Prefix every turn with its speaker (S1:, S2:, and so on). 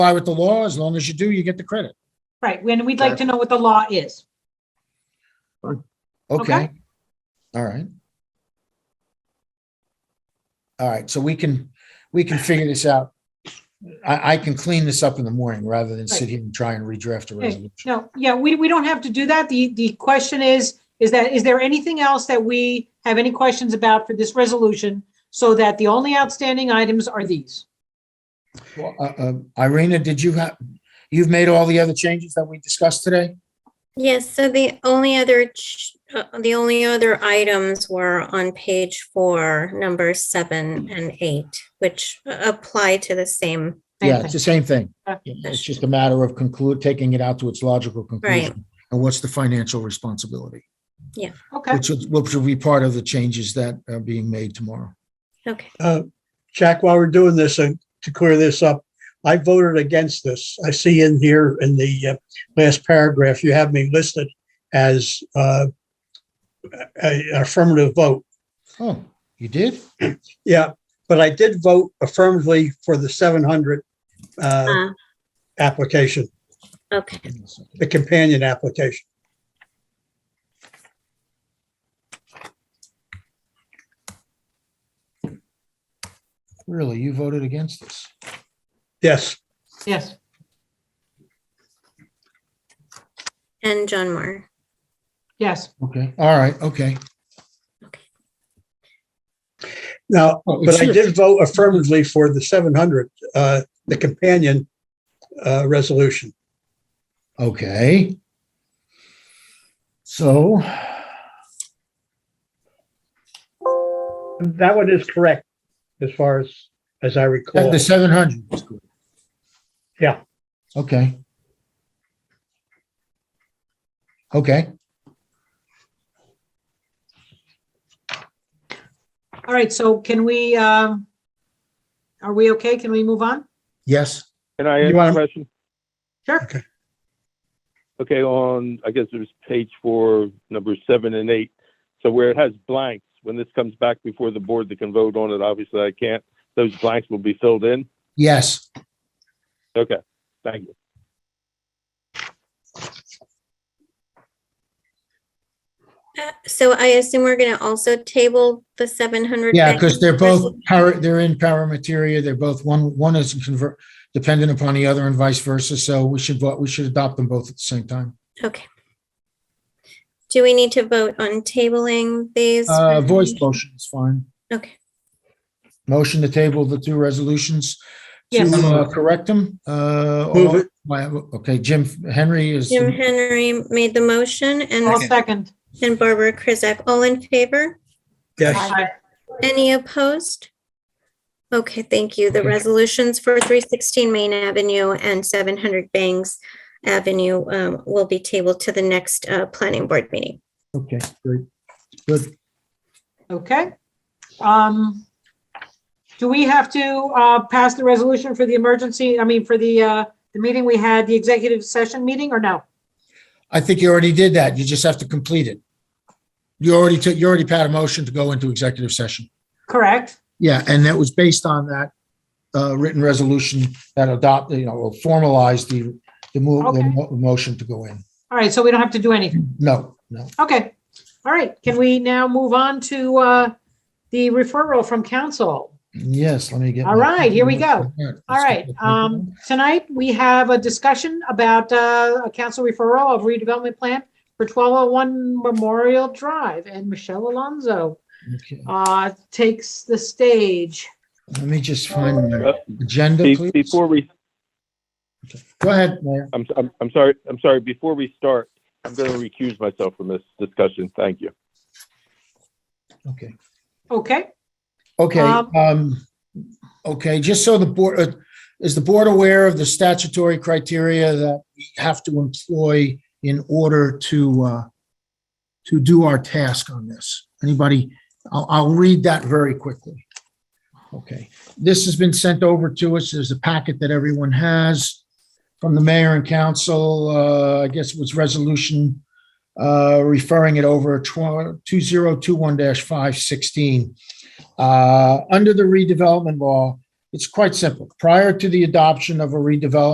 S1: comply with the law. As long as you do, you get the credit.
S2: Right, and we'd like to know what the law is.
S1: Okay.
S2: Okay.
S1: All right. All right, so we can, we can figure this out. I, I can clean this up in the morning rather than sit
S2: Right.
S1: here and try and redraft a
S2: Right.
S1: resolution.
S2: No, yeah, we, we don't have to do that. The, the question is, is that, is there anything else that we have any questions about for this resolution? So that the only outstanding items are these.
S1: Well, uh, uh, Irina, did you have, you've made all the other changes that we discussed today?
S3: Yes, so the only other, ch- uh, the only other items were on page four, number seven
S1: Hmm.
S3: and eight, which a- apply to the same.
S2: Same
S1: Yeah,
S2: thing. Uh,
S1: it's the same thing.
S2: Yeah.
S1: It's just a matter of conclude, taking it out to its logical conclusion. And what's the financial responsibility,
S2: Okay,
S1: which will, which will be part of the changes that are being made tomorrow.
S3: Okay,
S4: Uh, Jack, while we're doing this, uh, to clear this up, I voted against this. I see in here in the uh, last paragraph, you have me listed as uh, a- a affirmative vote.
S1: Oh, you did?
S4: Yeah, but I did vote affirmatively for the 700 uh,
S1: Oh.
S3: uh,
S4: application,
S3: okay,
S4: the companion application.
S1: Really? You voted against this?
S4: Yes,
S2: yes,
S3: and John Moore.
S2: yes.
S1: Okay, all right, okay.
S4: now,
S1: Oh,
S4: but
S1: it's
S4: I
S1: your-
S4: did vote affirmatively for the 700, uh, the companion uh, resolution.
S1: Okay. So,
S4: That one is correct as far as, as I recall.
S1: the seven hundred is good.
S4: Yeah.
S1: Okay. Okay,
S2: All right, so can we, um, are we okay? Can we move on?
S1: yes,
S5: Can I
S4: You
S5: ask
S4: wanna-
S5: a question?
S2: Sure.
S4: Okay.
S5: Okay, on, I guess it was page four, number seven and eight. So where it has blanks, when this comes back before the board that can vote on it, obviously I can't, those blanks will be filled in?
S1: yes.
S5: Okay, thank you.
S3: Uh, So I assume we're gonna also table the seven hundred.
S1: Yeah, because they're both, para- they're in paramateria. They're both, one, one is convert, dependent upon the other and vice versa. So we should, vo- we should adopt them both at the same time.
S3: Okay. Do we need to vote on tabling these?
S1: Uh, voice motion is fine.
S3: Okay,
S1: Motion to table the two resolutions to
S2: Yes.
S1: uh, correct them. Uh,
S4: Move
S1: all- my- okay, Jim Henry is,
S3: Jim Henry made the motion
S2: All
S3: and,
S2: second.
S3: and Barbara Krizak, all in favor?
S4: Yes,
S3: Any opposed? Okay, thank you. The resolutions for 316 Main Avenue and 700 Bangs Avenue um, will be tabled to the next uh, planning board meeting.
S1: okay, great. Good.
S2: Okay. Um, do we have to, uh, pass the resolution for the emergency, I mean, for the, uh, the meeting we had, the executive session meeting or no?
S1: I think you already did that. You just have to complete it. You already took, you already had a motion to go into executive session.
S2: Correct?
S1: Yeah, and that was based on that uh, written resolution that adopt, you know, or formalized the, the move, the
S2: Okay.
S1: mo- motion to go in.
S2: All right, so we don't have to do anything.
S1: No, no.
S2: Okay, all right, can we now move on to uh, the referral from council?
S1: Yes, let me get.
S2: All
S1: my-
S2: right, here we go. All right,
S1: Let's go.
S2: um, tonight we have a discussion about uh, a council referral of redevelopment plan for 1201 Memorial Drive, and Michelle Alonso
S1: Okay,
S2: uh, takes the stage.
S1: Let me just find my
S5: Uh,
S1: agenda,
S5: Be-
S1: please.
S5: Before we,
S1: Go ahead, Mayor.
S5: I'm, I'm, I'm sorry, I'm sorry, before we start, I'm going to recuse myself from this discussion. Thank you.
S1: Okay.
S2: Okay,
S1: Okay,
S2: Um,
S1: um, okay, just so the board, uh, is the board aware of the statutory criteria that we have to employ in order to, uh, to do our task on this? Anybody, I'll, I'll read that very quickly. Okay, this has been sent over to us. There's a packet that everyone has from the mayor and council. Uh, I guess it was resolution, uh, referring it over two zero two one five sixteen. Uh, under the redevelopment law, it's quite simple. Prior to the adoption of a redevelopment